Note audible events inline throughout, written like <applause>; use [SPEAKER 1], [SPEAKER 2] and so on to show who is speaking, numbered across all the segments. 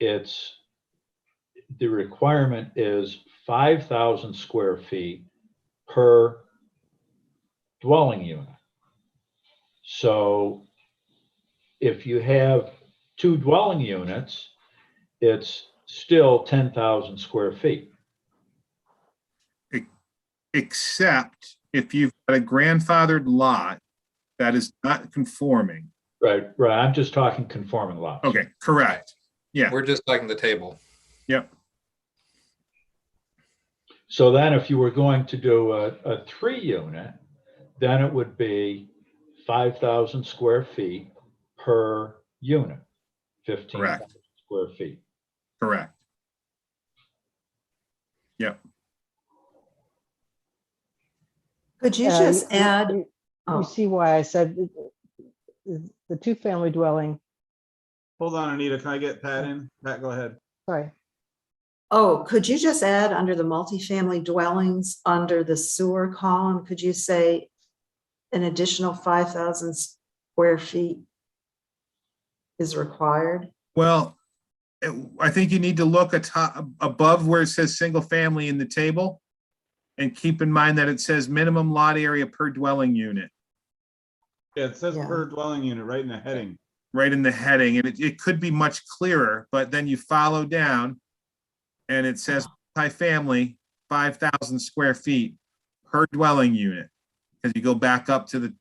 [SPEAKER 1] it's, the requirement is five thousand square feet per dwelling unit. So if you have two dwelling units, it's still ten thousand square feet.
[SPEAKER 2] except if you've got a grandfathered lot that is not conforming.
[SPEAKER 1] Right, right, I'm just talking conforming lots.
[SPEAKER 2] Okay, correct.
[SPEAKER 3] <laughs>
[SPEAKER 2] Yeah.
[SPEAKER 4] We're just talking the table.
[SPEAKER 1] So then if you were going to do a, a three unit, then it would be five thousand square feet per unit. Fifteen
[SPEAKER 2] Correct.
[SPEAKER 1] thousand square feet.
[SPEAKER 2] Correct.
[SPEAKER 5] Could you
[SPEAKER 6] Yeah,
[SPEAKER 5] just
[SPEAKER 6] you- you-
[SPEAKER 5] add,
[SPEAKER 6] you-
[SPEAKER 5] oh.
[SPEAKER 6] You see why I said th- th- the two-family dwelling,
[SPEAKER 3] Hold on, Anita, can I get Pat in? Pat, go ahead.
[SPEAKER 6] sorry,
[SPEAKER 5] oh, could you just add under the multifamily dwellings, under the sewer column, could you say an additional five thousand square feet is required?
[SPEAKER 2] Well, it- I think you need to look at top, above where it says single family in the table. And keep in mind that it says minimum lot area per dwelling unit,
[SPEAKER 3] Yeah, it says
[SPEAKER 5] Yeah.
[SPEAKER 3] per dwelling unit right in the heading.
[SPEAKER 2] right in the heading, and it, it could be much clearer, but then you follow down. And it says multifamily, five thousand square feet per dwelling unit. Cause you go back up to the.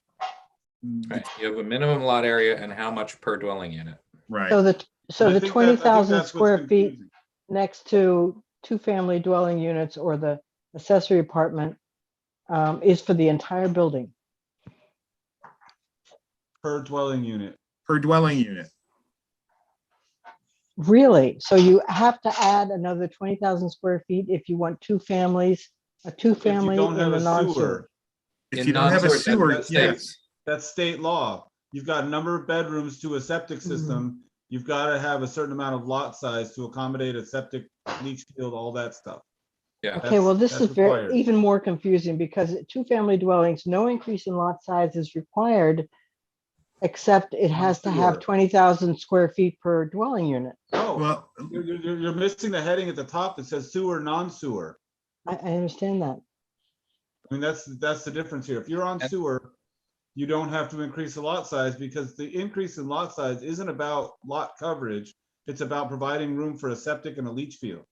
[SPEAKER 2] the
[SPEAKER 4] Right. You have a minimum lot area and how much per dwelling unit.
[SPEAKER 2] Right,
[SPEAKER 6] so the, so
[SPEAKER 3] I
[SPEAKER 6] the
[SPEAKER 3] think that- I think
[SPEAKER 6] twenty thousand
[SPEAKER 3] that's what's
[SPEAKER 6] square feet
[SPEAKER 3] confusing.
[SPEAKER 6] next to two-family dwelling units or the accessory apartment um, is for the entire building.
[SPEAKER 3] Per dwelling unit.
[SPEAKER 2] per dwelling unit.
[SPEAKER 6] Really? So you have to add another twenty thousand square feet if you want two families, a
[SPEAKER 3] If you
[SPEAKER 6] two-family
[SPEAKER 3] don't
[SPEAKER 6] and
[SPEAKER 3] have
[SPEAKER 6] a
[SPEAKER 3] a
[SPEAKER 6] non-sewer.
[SPEAKER 3] sewer,
[SPEAKER 2] If
[SPEAKER 4] In
[SPEAKER 2] you don't have a
[SPEAKER 4] non-sewer, that-
[SPEAKER 2] sewer,
[SPEAKER 4] that
[SPEAKER 2] yes,
[SPEAKER 4] states-
[SPEAKER 3] that's state law. You've got a number of bedrooms to a septic
[SPEAKER 6] Mm-hmm.
[SPEAKER 3] system. You've got to have a certain amount of lot size to accommodate a septic leach field, all that stuff.
[SPEAKER 4] Yeah.
[SPEAKER 6] Okay, well,
[SPEAKER 3] That's-
[SPEAKER 6] this is
[SPEAKER 3] that's
[SPEAKER 6] very, e-
[SPEAKER 3] required.
[SPEAKER 6] even more confusing because two-family dwellings, no increase in lot size is required. Except it has to have
[SPEAKER 3] Sure.
[SPEAKER 6] twenty thousand square feet per dwelling unit.
[SPEAKER 3] Oh,
[SPEAKER 2] well,
[SPEAKER 3] you're, you're, you're missing the heading at the top that says sewer, non-sewer.
[SPEAKER 6] I, I understand that.
[SPEAKER 3] I mean, that's, that's the difference here. If you're on
[SPEAKER 4] That's-
[SPEAKER 3] sewer, you don't have to increase the lot size because the increase in lot size isn't about lot coverage. It's about providing room for a septic and a leach field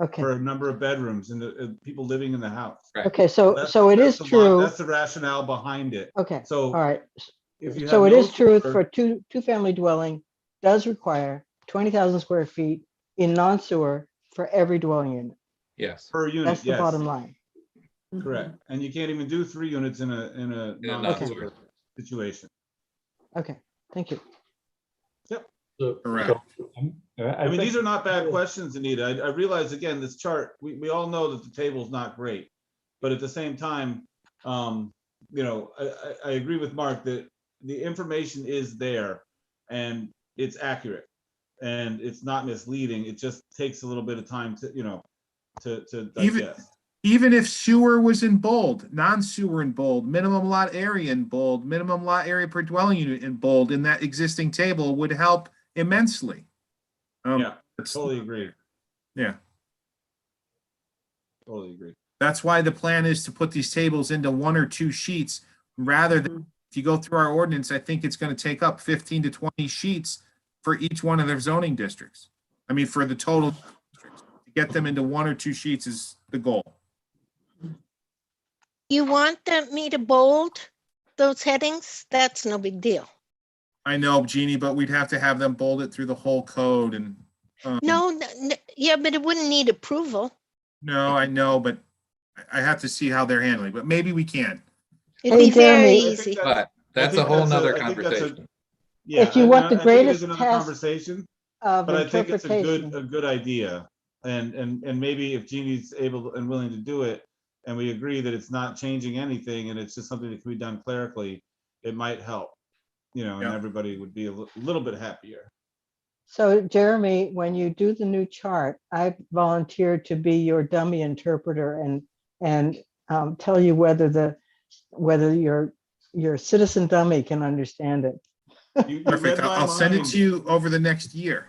[SPEAKER 6] Okay,
[SPEAKER 3] for a number of bedrooms and the, and people living in the house.
[SPEAKER 4] Right.
[SPEAKER 6] okay, so,
[SPEAKER 3] That's-
[SPEAKER 6] so it
[SPEAKER 3] that's
[SPEAKER 6] is
[SPEAKER 3] the lo-
[SPEAKER 6] true.
[SPEAKER 3] That's the rationale behind it.
[SPEAKER 6] Okay, all
[SPEAKER 3] So
[SPEAKER 6] right.
[SPEAKER 3] if you have.
[SPEAKER 6] So it
[SPEAKER 3] no
[SPEAKER 6] is true
[SPEAKER 3] sewer-
[SPEAKER 6] for two, two-family dwelling does require twenty thousand square feet in non-sewer for every dwelling unit.
[SPEAKER 4] Yes.
[SPEAKER 3] Per
[SPEAKER 6] That's
[SPEAKER 3] unit,
[SPEAKER 6] the
[SPEAKER 3] yes,
[SPEAKER 6] bottom line.
[SPEAKER 3] correct. And you can't even do three units in a, in a
[SPEAKER 4] In a
[SPEAKER 3] non-sewer
[SPEAKER 4] non-sewer.
[SPEAKER 3] situation.
[SPEAKER 6] Okay, thank you.
[SPEAKER 1] So-
[SPEAKER 2] Correct.
[SPEAKER 1] so, um, I
[SPEAKER 3] I mean, these
[SPEAKER 1] think
[SPEAKER 3] are not bad questions, Anita. I, I realize, again, this chart, we, we all know that the table's not great. But at the same time, um, you know, I, I, I agree with Mark that the information is there and it's accurate. And it's not misleading. It just takes a little bit of time to, you know, to, to
[SPEAKER 2] Even-
[SPEAKER 3] digest.
[SPEAKER 2] even if sewer was in bold, non-sewer in bold, minimum lot area in bold, minimum lot area per dwelling unit in bold, in that existing table would help immensely. Um,
[SPEAKER 3] Yeah,
[SPEAKER 2] that's-
[SPEAKER 3] Totally agree.
[SPEAKER 2] Yeah.
[SPEAKER 3] Totally agree.
[SPEAKER 2] That's why the plan is to put these tables into one or two sheets rather
[SPEAKER 3] Mm-hmm.
[SPEAKER 2] than, if you go through our ordinance, I think it's gonna take up fifteen to twenty sheets for each one of their zoning districts. I mean, for the total, districts. to get them into one or two sheets is the goal.
[SPEAKER 7] You want them, me to bold those headings? That's no big deal.
[SPEAKER 2] I know, Jeannie, but we'd have to have them bolded through the whole code and. um,
[SPEAKER 7] No, n- n- yeah, but it wouldn't need approval.
[SPEAKER 2] No, I know, but I- I have to see how they're handling, but maybe we can.
[SPEAKER 7] It'd
[SPEAKER 6] Hey,
[SPEAKER 7] be very
[SPEAKER 6] Jeremy.
[SPEAKER 3] I think
[SPEAKER 7] easy.
[SPEAKER 3] that's-
[SPEAKER 4] But that's a
[SPEAKER 3] think
[SPEAKER 4] whole
[SPEAKER 3] that's a-
[SPEAKER 4] nother
[SPEAKER 3] I think that's a-
[SPEAKER 4] conversation.
[SPEAKER 3] Yeah,
[SPEAKER 6] If you
[SPEAKER 3] I-
[SPEAKER 6] want the
[SPEAKER 3] I think it is
[SPEAKER 6] greatest
[SPEAKER 3] another
[SPEAKER 6] test-
[SPEAKER 3] Conversation.
[SPEAKER 6] Of
[SPEAKER 3] But I think it's a good,
[SPEAKER 6] interpretation.
[SPEAKER 3] a good idea. And, and, and maybe if Jeannie's able and willing to do it, and we agree that it's not changing anything and it's just something that can be done clerically, it might help. You know, and
[SPEAKER 2] Yeah.
[SPEAKER 3] everybody would be a li- little bit happier.
[SPEAKER 6] So Jeremy, when you do the new chart, I volunteered to be your dummy interpreter and, and um, tell you whether the, whether your, your citizen dummy can understand it.
[SPEAKER 3] You- you read
[SPEAKER 2] Perfect. I'll
[SPEAKER 3] my
[SPEAKER 2] I'll send it
[SPEAKER 3] mind.
[SPEAKER 2] to you over the next year.